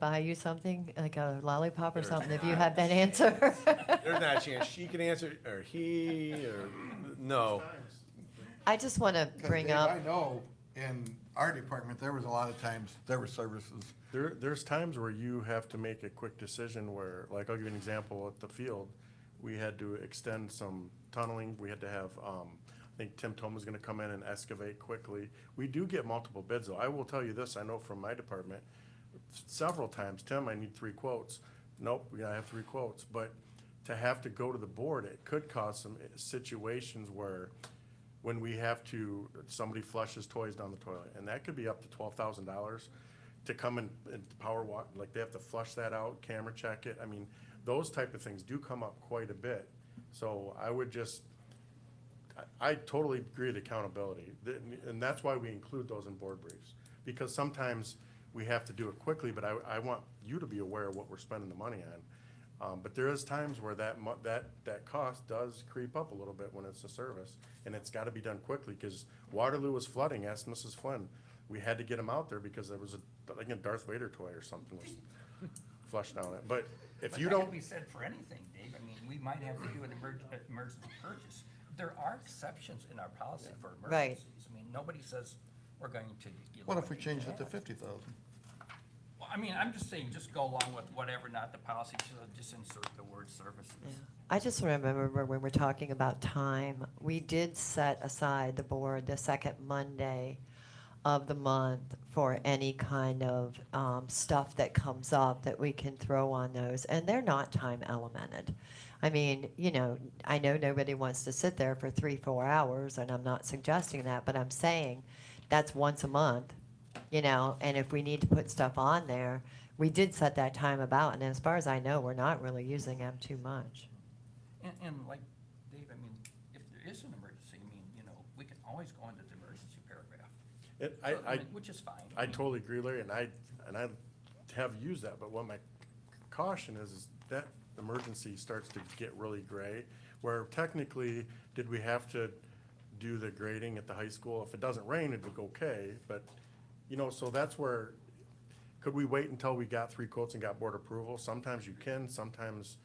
buy you something, like a lollipop or There's something, if you not. had that answer? There's not a chance she can answer, or he, or, no. I just want to 'Cause bring Dave, up. I know in our department, there was a lot of times, there were services. There, there's times where you have to make a quick decision where, like, I'll give you an example at the field. We had to extend some tunneling, we had to have, um, I think Tim Tom was gonna come in and excavate quickly. We do get multiple bids, though. I will tell you this, I know from my department, several times, Tim, I need three quotes. Nope, we gotta have three quotes, but to have to go to the board, it could cause some situations where when we have to, somebody flushes toys down the toilet, and that could be up to twelve thousand dollars to come and, and power walk, like they have to flush that out, camera check it, I mean, those type of things do come up quite a bit. So I would just, I, I totally agree with accountability, Th- and that's why we include those in board briefs. Because sometimes we have to do it quickly, but I, I want you to be aware of what we're spending the money on. Um, but there is times where that mu- that, that cost does creep up a little bit when it's a service, and it's gotta be done quickly, cause Waterloo was flooding, asked Mrs. Flynn. We had to get them out there because there was a, like a Darth Vader toy or something was flushed down it, but if you don't. But that could be said for anything, Dave. I mean, we might have to do an emerg- uh, emergency purchase. There are exceptions in our policy for Right. emergencies. I mean, nobody says we're going to. give What if away we changed it to cash. fifty thousand? Well, I mean, I'm just saying, just go along with whatever, not the policy, just- uh, just insert the word services. I just remember when we're talking about time, we did set aside the board the second Monday of the month for any kind of um, stuff that comes up that we can throw on those, and they're not time elemented. I mean, you know, I know nobody wants to sit there for three, four hours, and I'm not suggesting that, but I'm saying that's once a month, you know, and if we need to put stuff on there, we did set that time about, and as far as I know, we're not really using them too much. And, and like, Dave, I mean, if there is an emergency, I mean, you know, we can always go into the emergency paragraph. It, I, So, I, mean, Which is fine. I mean, totally agree, Larry, and I, and I have used that, but what my caution is, is that emergency starts to get really gray, where technically, did we have to do the grading at the high school? If it doesn't rain, it'd look okay, but, you know, so that's where, could we wait until we got three quotes and got board approval? Sometimes you can, sometimes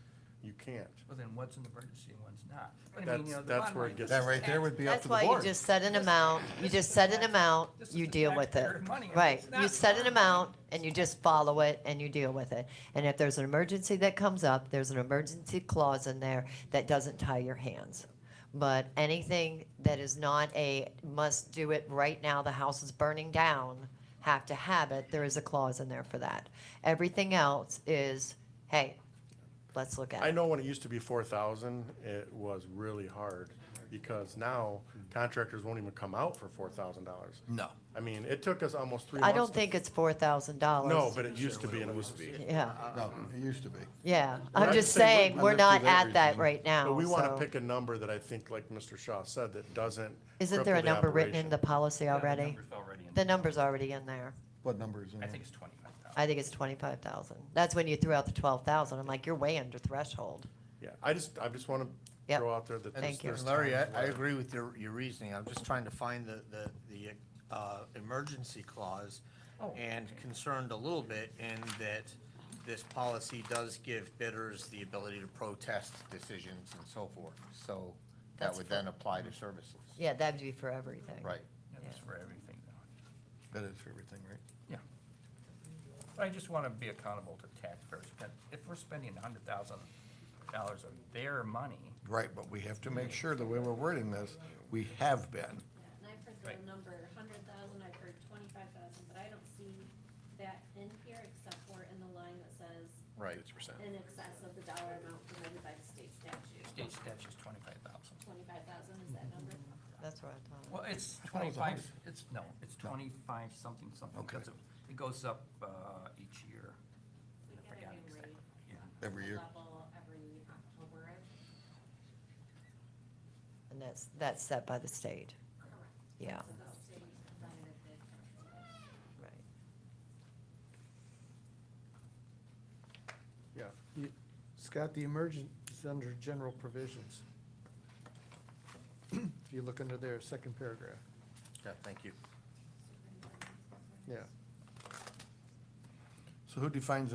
you can't. Well, then what's an emergency and what's not? But I mean, That's- you know, the that's bottom where it line gets- is That right there would be up That's to the why you board. just set an amount, you just set an amount, This is you the deal with it. taxpayer money, and Right, it's not you set an mine. amount and you just follow it and you deal with it. And if there's an emergency that comes up, there's an emergency clause in there that doesn't tie your hands. But anything that is not a must do it right now, the house is burning down, have to have it, there is a clause in there for that. Everything else is, hey, let's look at it. I know when it used to be four thousand, it was really hard, because now Mm-hmm. contractors won't even come out for four thousand dollars. No. I mean, it took us almost three months. I don't to- think it's four thousand dollars. No, but it used to be, and it was, Yeah. No, it used to be. Yeah, Well, I'm I just just say saying, we're- we're I'm not not with at that everything, right now, but we want so- to pick a number that I think, like Mr. Shaw said, that doesn't. Isn't there a cripple the number written in the operation. policy Yeah, the already? number's already in The there. number's already in there. What numbers? in I it? think it's twenty-five thousand. I think it's twenty-five thousand. That's when you threw out the twelve thousand. I'm like, you're way under threshold. Yeah, I just, I just want to Yep. throw out there that. Thank there's- you. there's Larry, I, times I where- agree with your, your reasoning. I'm just trying to find the, the, the, uh, emergency clause Oh. and concerned a little bit in that this policy does give bidders the ability to protest decisions and so forth. So that That's would then apply to services, Yeah, that'd be for everything. right? Yeah, That's for everything though. That is for everything, right? Yeah. But I just want to be accountable to taxpayers. But If we're spending a hundred thousand dollars of their money, Right, but we have to make sure the way we're wording this, we have been. And I've heard Right. the number, hundred thousand, I've heard twenty-five thousand, but I don't see that in here except for in the line that says Right. in excess of the dollar amount permitted by the state statute. state statute's twenty-five thousand. Twenty-five thousand is that number? That's what I thought. Well, I thought it was it's a twenty-five, hundred. it's, no, it's twenty-five something, something. Okay. because of- It goes up, uh, each year. We I get forgot a new exactly. rate Yeah. Every year. level every October, I think. And that's, that's set by the state. correct? Yeah, So the state provided that- right. Yeah, you- Scott, the emergent is under general provisions. If you look under there, second paragraph, Yeah, thank you. yeah. So who defines the